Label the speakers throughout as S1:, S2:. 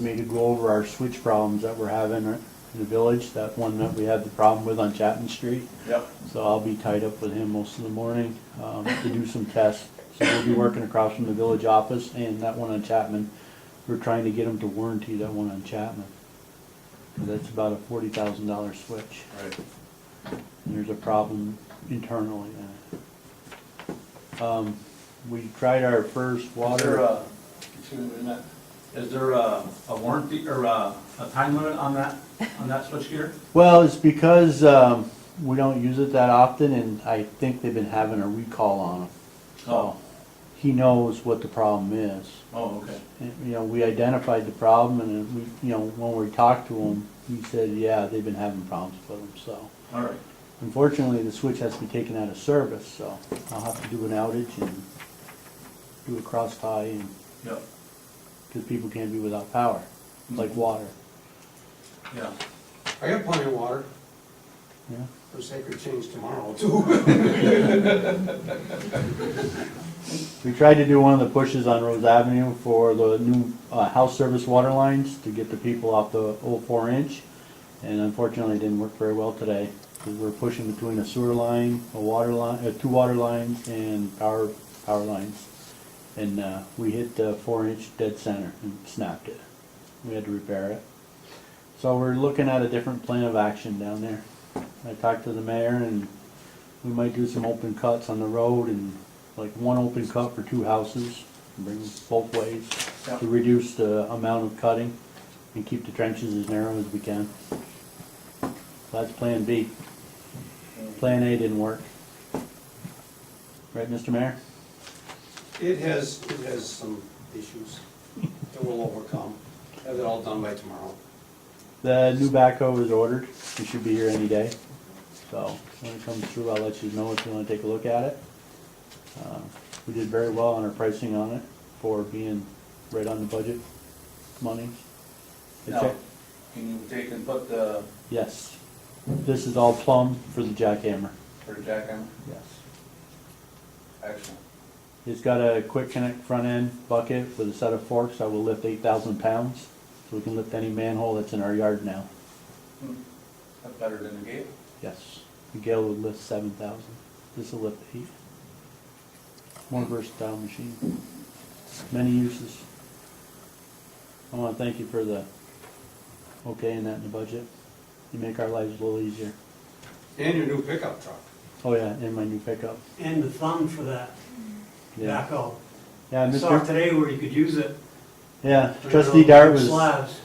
S1: me to go over our switch problems that we're having in the village, that one that we had the problem with on Chapman Street.
S2: Yep.
S1: So I'll be tied up with him most of the morning um, to do some tests. So we'll be working across from the village office and that one on Chapman. We're trying to get him to warranty that one on Chapman. And That's about a forty thousand dollar switch.
S2: Right.
S1: And there's a problem internally in it. Um, We tried our first
S2: Is there
S1: water.
S2: a, excuse me, a minute. is there a a warranty or a, a time limit on that, on that switchgear?
S1: Well, it's because um, we don't use it that often and I think they've been having a recall on them. So
S2: Oh.
S1: he knows what the problem is.
S2: Oh, okay.
S1: And, you know, we identified the problem and then we, you know, when we talked to him, he said, yeah, they've been having problems with them, so.
S2: All right.
S1: Unfortunately, the switch has to be taken out of service, so I'll have to do an outage and do a cross tie and,
S2: Yep.
S1: because people can't be without power, like water,
S2: Yeah.
S3: I got plenty of water
S1: yeah.
S3: for sacred change tomorrow too.
S1: We tried to do one of the pushes on Rose Avenue for the new uh, house service water lines to get the people off the old four inch. And unfortunately, it didn't work very well today, because we're pushing between a sewer line, a water line, uh, two water lines and power, power lines. And uh, we hit the four inch dead center and snapped it. We had to repair it. So we're looking at a different plan of action down there. I talked to the mayor and we might do some open cuts on the road and like one open cut for two houses, bring them both ways
S2: Yeah.
S1: to reduce the amount of cutting and keep the trenches as narrow as we can. That's plan B. Plan A didn't work. Right, Mr. Mayor?
S3: It has, it has some issues that we'll overcome. Have it all done by tomorrow.
S1: The new backhoe is ordered. It should be here any day. So when it comes through, I'll let you know if you want to take a look at it. Uh, We did very well on our pricing on it for being right on the budget money. The
S2: Now,
S1: check-
S2: can you take and put the,
S1: Yes. This is all plumb for the jackhammer.
S2: for the jackhammer?
S1: Yes.
S2: Excellent.
S1: It's got a quick connect front end bucket with a set of forks that will lift eight thousand pounds. So we can lift any manhole that's in our yard now.
S2: Hmm. That's better than the gate.
S1: Yes, the Gale would lift seven thousand, this will lift eight. More versatile machine, many uses. I wanna thank you for the, okay, and that in the budget, you make our lives a little easier.
S3: And your new pickup truck.
S1: Oh yeah, and my new pickup,
S4: and the fund for that
S1: yeah.
S4: backhoe.
S1: Yeah,
S4: I saw it
S1: Mr.,
S4: today where you could use it.
S1: yeah,
S4: for
S1: trustee
S4: your
S1: Dart was.
S4: Slabs.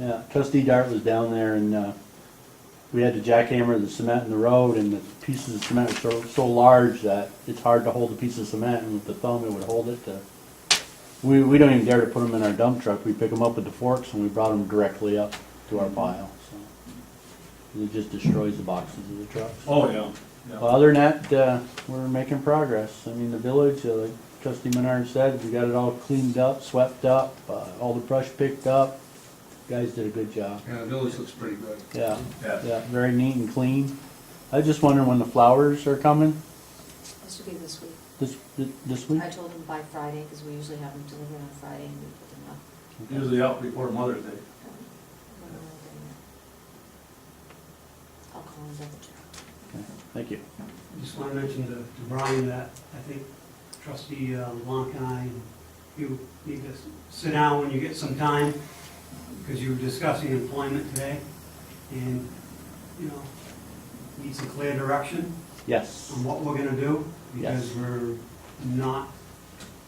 S1: Yeah, trustee Dart was down there and, uh, we had to jackhammer the cement in the road and the pieces of cement were so, so large that it's hard to hold a piece of cement and with the thumb it would hold it to. We, we don't even dare to put them in our dump truck. We pick them up with the forks and we brought them directly up to our pile, so. It just destroys the boxes of the trucks.
S2: Oh, yeah.
S1: Well, other than that, uh, we're making progress. I mean, the village, uh, like trustee Menard said, we got it all cleaned up, swept up, uh, all the brush picked up. Guys did a good job.
S3: Yeah, the village looks pretty good.
S1: Yeah,
S2: Yeah.
S1: yeah, very neat and clean. I was just wondering when the flowers are coming,
S5: This should be this week.
S1: this, this week?
S5: I told them by Friday, because we usually have them delivered on Friday and we put them up. Um,
S2: Usually out before Mother's Day.
S5: When they're open. I'll call them double check.
S1: Okay, Thank you.
S4: Just want to mention to to Brian that I think trustee uh, LeBlanc and I, and you need to sit down when you get some time, because you were discussing employment today, and, you know, need some clear direction
S1: Yes,
S4: on what we're gonna do, because
S1: Yes.
S4: we're not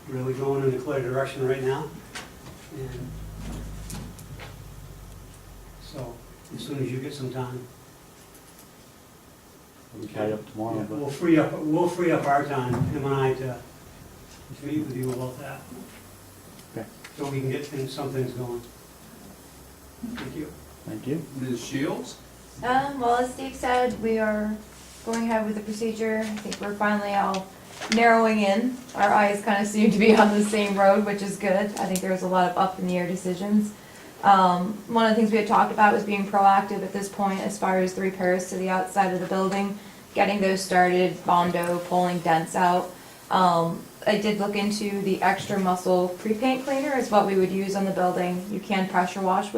S4: really going in a clear direction right now. And so, as soon as you get some time,
S1: I'm tied up tomorrow,
S4: Yeah, We'll
S1: but
S4: free up, we'll free up our time, him and I, to, to meet with you about that.
S1: Okay.
S4: So we can get things, some things going. Thank you.
S1: thank you.
S3: Ms. Shields?
S6: Um, well, as Steve said, we are going ahead with the procedure. I think we're finally all narrowing in. Our eyes kind of seem to be on the same road, which is good. I think there was a lot of up in the air decisions. Um, one of the things we had talked about was being proactive at this point as far as the repairs to the outside of the building, getting those started, bondo, pulling dents out. Um, I did look into the extra muscle pre-paint cleaner is what we would use on the building. You can pressure wash with